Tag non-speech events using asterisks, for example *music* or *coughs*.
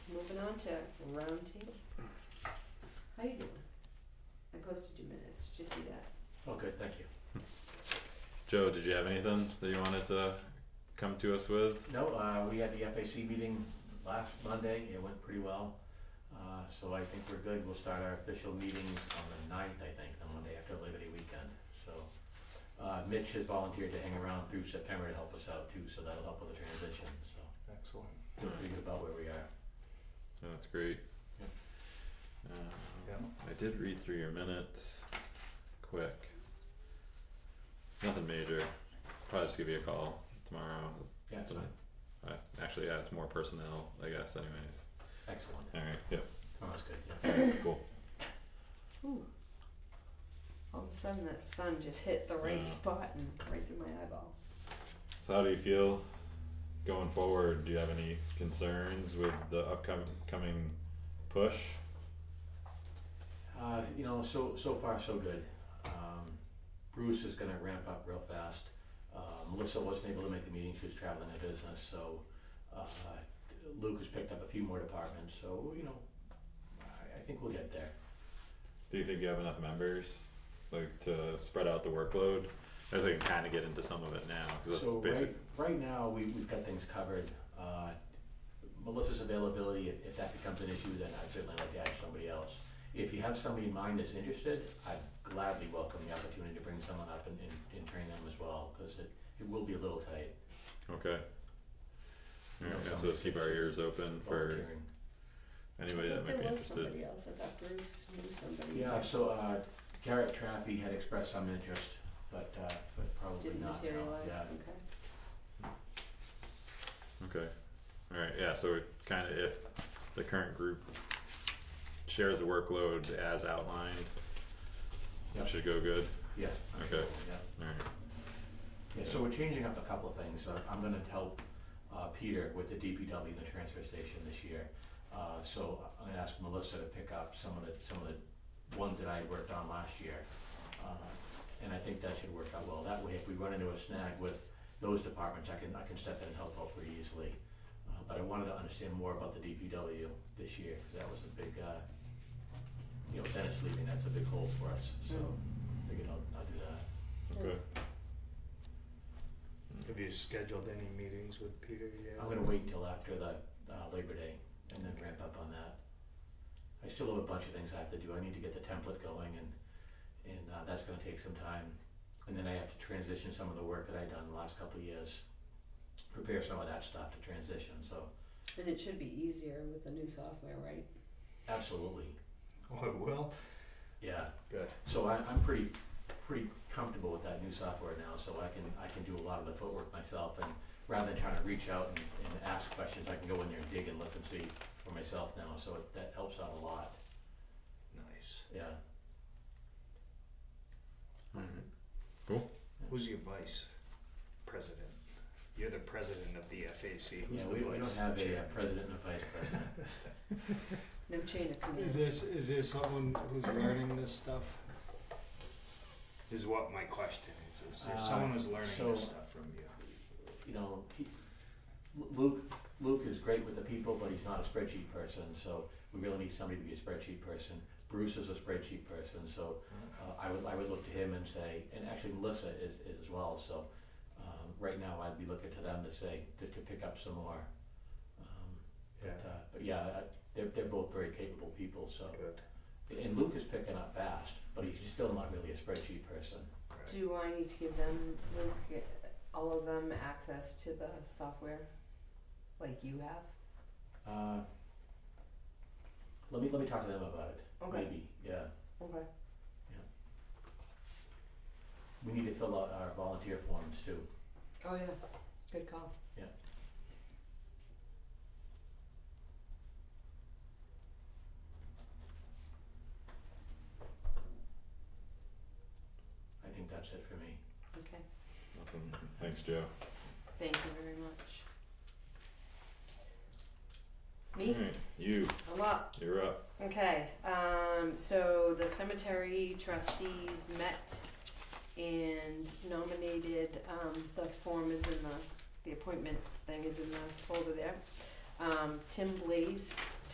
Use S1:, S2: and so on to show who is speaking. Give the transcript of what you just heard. S1: on to roundtable. How you doing? I posted two minutes, did you see that?
S2: Oh, good, thank you.
S3: Joe, did you have anything that you wanted to come to us with?
S2: No, uh, we had the FAC meeting last Monday, it went pretty well. Uh, so I think we're good, we'll start our official meetings on the ninth, I think, the Monday after Labor Day weekend, so. Uh, Mitch has volunteered to hang around through September to help us out too, so that'll help with the transition, so
S4: Excellent.
S2: feel pretty good about where we are.
S3: No, That's great.
S2: Yeah.
S3: Um,
S4: Yeah.
S3: I did read through your minutes, quick. Nothing major, probably just give you a call tomorrow.
S2: Yeah, so,
S3: Uh, actually, yeah, it's more personnel, I guess anyways.
S2: excellent,
S3: Alright, yep,
S2: Oh, that's good, yeah.
S3: alright, *coughs* cool.
S1: Ooh. All of a sudden, that sun just hit the right
S3: Yeah.
S1: spot and right through my eyeball.
S3: So how do you feel going forward? Do you have any concerns with the upcoming coming push?
S2: Uh, you know, so so far so good. Um, Bruce is going to ramp up real fast. Uh, Melissa wasn't able to make the meeting; she was traveling a business. So uh, Luke has picked up a few more departments. So you know, I, I think we'll get there.
S3: Do you think you have enough members, like to spread out the workload? As I can kind of get into some of it now, because that's
S2: so
S3: basic.
S2: right right now we we've got things covered. Uh, Melissa's availability, if, if that becomes an issue, then I'd certainly like to add somebody else. If you have somebody in mind that's interested, I'd gladly welcome the opportunity to bring someone up and, and, and train them as well, because it, it will be a little tight.
S3: Okay.
S2: No
S3: Alright, so
S2: conversation.
S3: let's keep our ears open for
S2: volunteering.
S3: anybody that might be interested.
S1: There was somebody else, I thought Bruce knew somebody.
S2: Yeah, so, uh, Garrett Traffey had expressed some interest, but, uh, but probably
S1: Didn't
S2: not, no,
S1: materialize,
S2: yeah.
S1: okay.
S3: Okay, alright, yeah, so it kind of if the current group shares the workload as outlined,
S2: Yep.
S3: it should go good,
S2: Yeah, I'm
S3: Okay.
S2: sure, yeah.
S3: alright,
S2: Yeah, so we're changing up a couple of things. Uh, I'm gonna help uh, Peter with the DPW, and the transfer station this year. Uh, So I'm gonna ask Melissa to pick up some of the, some of the ones that I had worked on last year. Uh, And I think that should work out well. That way, if we run into a snag with those departments, I can, I can step in and help out pretty easily. Uh, But I wanted to understand more about the DPW this year, because that was a big, uh, you know, Dennis leaving, that's a big hole for us, so
S1: Mm.
S2: figured I'll, I'll do that.
S3: okay,
S1: Yes.
S4: Have you scheduled any meetings with Peter yet?
S2: I'm gonna wait until after the uh, Labor Day and then ramp up on that. I still have a bunch of things I have to do. I need to get the template going and and uh, that's gonna take some time. And then I have to transition some of the work that I've done the last couple of years, prepare some of that stuff to transition. So
S1: And it should be easier with the new software, right?
S2: absolutely,
S4: *laughs* Oh, it will?
S2: yeah.
S4: Good.
S2: So I, I'm pretty pretty comfortable with that new software now. So I can I can do a lot of the footwork myself. And rather than trying to reach out and, and ask questions, I can go in there and dig and look and see for myself now. So it, that helps out a lot.
S4: Nice.
S2: Yeah.
S3: alright,
S4: Who's your vice president? You're the president of the FAC. Who's
S2: Yeah,
S4: the
S2: we, we
S4: vice
S2: don't have a uh,
S4: chairman?
S2: president and a vice president.
S1: No chain of command.
S5: Is this is there someone who's learning this stuff?
S4: Is what my question is. Is there
S2: Uh,
S4: someone who's learning this
S2: so-
S4: stuff from you?
S2: You know, he, Lu- Luke, Luke is great with the people, but he's not a spreadsheet person, so we really need somebody to be a spreadsheet person. Bruce is a spreadsheet person, so uh, I would, I would look to him and say, and actually Melissa is, is as well, so, um, right now I'd be looking to them to say, to, to pick up some more. Um,
S4: Yeah.
S2: But, uh, but yeah, I- they're, they're both very capable people, so,
S4: Good.
S2: and Luke is picking up fast, but he's still not really a spreadsheet person.
S4: Right.
S1: Do I need to give them, Luke, all of them access to the software? Like you have?
S2: Uh, let me let me talk to them about it.
S1: Okay.
S2: Maybe, yeah.
S1: Okay.
S2: We need to fill out our volunteer forms too.
S1: Oh, yeah. Good call.
S2: I think that's it for me.
S1: Okay.
S3: awesome, thanks Joe.
S1: Thank you very much. Me?
S3: Alright, you,
S1: I'm up.
S3: you're up,
S1: Okay, um, so the cemetery trustees met and nominated, um, the form is in the, the appointment thing is in the folder there. Um, Tim Blaze